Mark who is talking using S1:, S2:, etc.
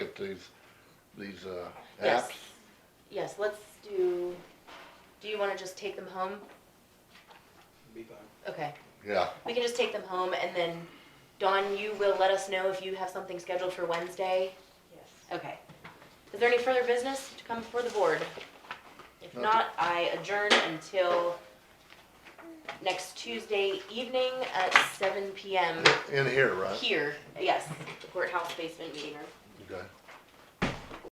S1: these, these, uh,
S2: Yes.
S1: apps?
S2: Yes, let's do, do you wanna just take them home?
S3: Be fine.
S2: Okay,
S1: Yeah,
S2: we can just take them home and then, Dawn, you will let us know if you have something scheduled for Wednesday?
S4: Yes.
S2: Okay. Is there any further business to come before the board? If
S1: No.
S2: not, I adjourn until next Tuesday evening at seven PM
S1: in here, right?
S2: here, yes, the courthouse basement meeting room.
S1: Okay.